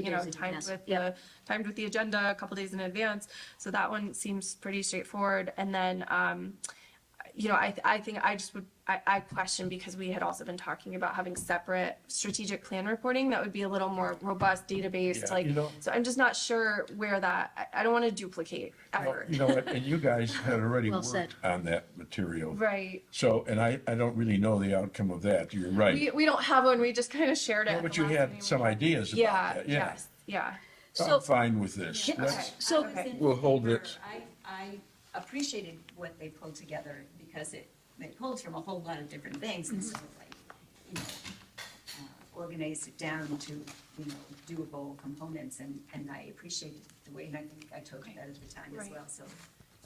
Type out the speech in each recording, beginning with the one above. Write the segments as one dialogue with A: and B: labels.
A: you know,
B: days in
A: timed
B: advance.
A: with the,
B: Yep.
A: timed with the agenda a couple days in advance. So that one seems pretty straightforward. And then, um, you know, I, I think I just would, I, I question because we had also been talking about having separate strategic plan reporting that would be a little more robust database,
C: Yeah,
A: like,
C: you know-
A: so I'm just not sure where that, I, I don't want to duplicate effort.
C: You know what, and you guys had already
B: Well said.
C: worked on that material.
A: Right.
C: So, and I, I don't really know the outcome of that, you're
A: We,
C: right.
A: we don't have one. We just kind of shared it. at
C: But
A: the
C: you
A: last
C: had
A: meeting.
C: some ideas about
A: Yeah,
C: that, yeah.
A: yes, yeah.
C: I'm
B: So-
C: fine with this.
B: Yeah,
C: Let's-
A: Okay.
B: So,
A: Okay.
C: We'll hold it.
D: I, I appreciated what they pulled together because it, they pulled from a whole lot of different things and sort of like, you know, uh, organized it down to, you know, doable components and, and I appreciated the way, and I think I told you that at the time as
A: Right.
D: well, so.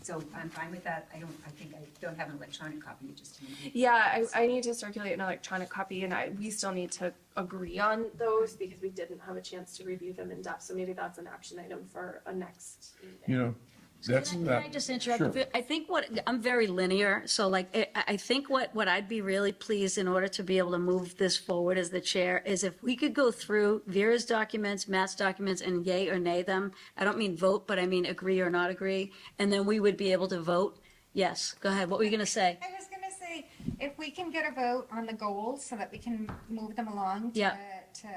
D: So I'm fine with that. I don't, I think I don't have an electronic copy, just.
A: Yeah, I, I need to circulate an electronic copy and I, we still need to agree on those because we didn't have a chance to review them in depth. So maybe that's an action item for a next meeting.
C: You know, that's
B: Can
C: not.
B: I just interrupt?
C: Sure.
B: I think what, I'm very linear, so like, I, I think what, what I'd be really pleased in order to be able to move this forward as the chair is if we could go through Vera's documents, Matt's documents, and yay or nay them. I don't mean vote, but I mean agree or not agree, and then we would be able to vote. Yes, go ahead, what were you gonna say?
E: I was gonna say, if we can get a vote on the goals so that we can move them along to,
B: Yeah.
E: to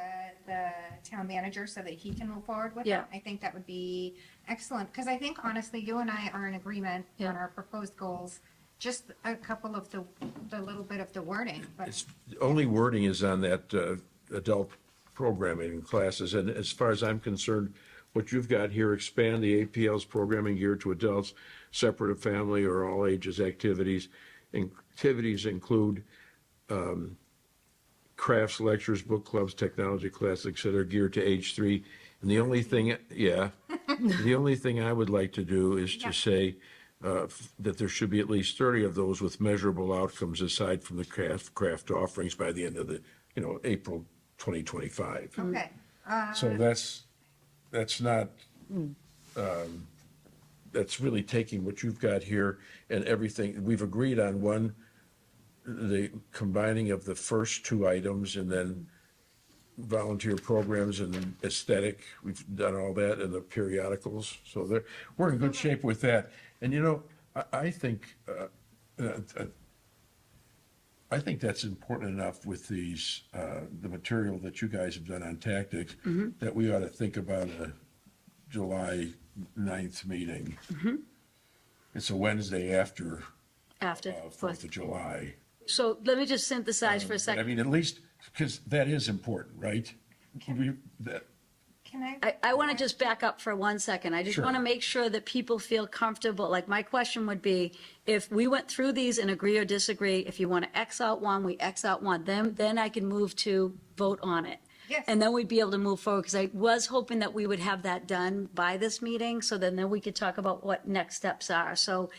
E: the town manager so that he can move forward with
B: Yeah.
E: them, I think that would be excellent. Because I think honestly, you and I are in agreement
B: Yeah.
E: on our proposed goals, just a couple of the, the little bit of the wording, but
C: It's, the only wording is on that uh, adult programming classes, and as far as I'm concerned, what you've got here, expand the APL's programming gear to adults, separate of family or all ages activities. And Activities include um, crafts, lectures, book clubs, technology classes, et cetera, geared to age three. And the only thing, yeah, the only thing I would like to do is to say uh, f- that there should be at least 30 of those with measurable outcomes aside from the craft, craft offerings by the end of the, you know, April 2025.
E: okay.
C: So that's, that's not, um, that's really taking what you've got here and everything. We've agreed on one, the combining of the first two items and then volunteer programs and aesthetic. We've done all that and the periodicals. So there, we're in good shape with that. And you know, I, I think, uh, uh, uh, I think that's important enough with these, uh, the material that you guys have done on tactics, that we ought to think about a July 9th meeting. It's a Wednesday after
B: After,
C: uh, Fourth of July.
B: so let me just synthesize for a
C: But I
B: second.
C: mean, at least, because that is important, right? We, that,
E: Can I?
B: I, I want to just back up for one second. I just
C: Sure.
B: want to make sure that people feel comfortable. Like, my question would be, if we went through these and agree or disagree, if you want to X out one, we X out one, then, then I can move to vote on it.
E: Yes.
B: And then we'd be able to move forward, because I was hoping that we would have that done by this meeting, so then, then we could talk about what next steps are. So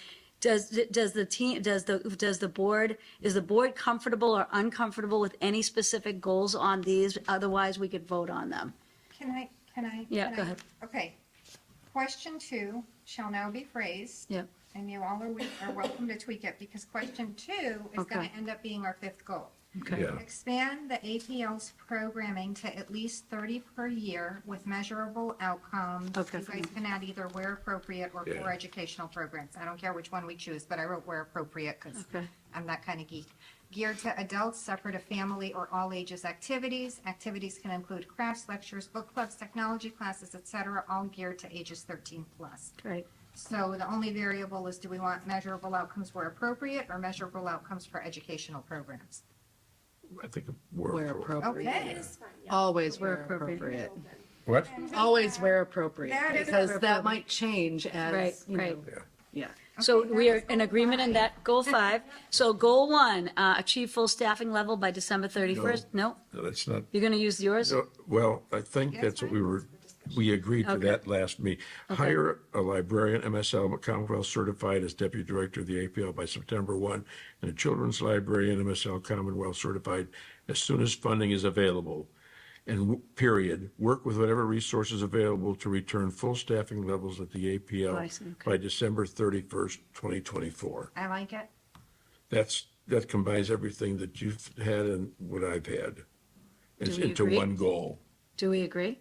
B: does, does the team, does the, does the board, is the board comfortable or uncomfortable with any specific goals on these? Otherwise, we could vote on them.
E: Can I, can I?
B: Yeah,
E: can
B: go
E: I-
B: ahead.
E: Okay. Question two shall now be phrased.
B: Yep.
E: And you all are, we- are welcome to tweak it because question two is going
B: Okay.
E: to end up being our fifth goal.
B: Okay.
C: yeah,
E: Expand the APL's programming to at least 30 per year with measurable outcomes.
B: Okay,
E: You
B: fine.
E: guys can add either where appropriate or
C: Yeah.
E: for educational programs. I don't care which one we choose, but I wrote where appropriate because
B: Okay.
E: I'm that kind of geek. Geared to adults, separate of family or all ages activities. Activities can include crafts, lectures, book clubs, technology classes, et cetera, all geared to ages 13 plus.
B: Great.
E: So the only variable is do we want measurable outcomes where appropriate or measurable outcomes for educational programs?
C: I think we're.
F: Where
E: Okay.
F: appropriate.
B: It's
F: Always
B: where
F: where
B: appropriate.
F: appropriate.
C: What?
F: Always where appropriate,
E: That is
F: because
B: appropriate.
F: that might change
B: Right,
F: as, you
B: right.
F: know, yeah.
B: So
E: Okay,
B: we
E: that
B: are
E: was
B: in
E: goal
B: agreement in
E: five.
B: that, goal five. So goal one, uh, achieve full staffing level by December 31st? No?
C: No, that's not,
B: You're going to use yours?
C: no, well, I think that's what we were, we agreed to
B: Okay.
C: that last meet. Hire a librarian, MSL Commonwealth certified as deputy director of the APL by September 1, and a children's librarian, MSL Commonwealth certified as soon as funding is available. and w- period, work with whatever resources available to return full staffing levels at the
B: Oh, I see.
C: APL by December 31st, 2024.
E: I like it.
C: That's, that combines everything that you've had and what I've had. It's
B: we
C: into
B: agree?
C: one goal.
B: Do we agree?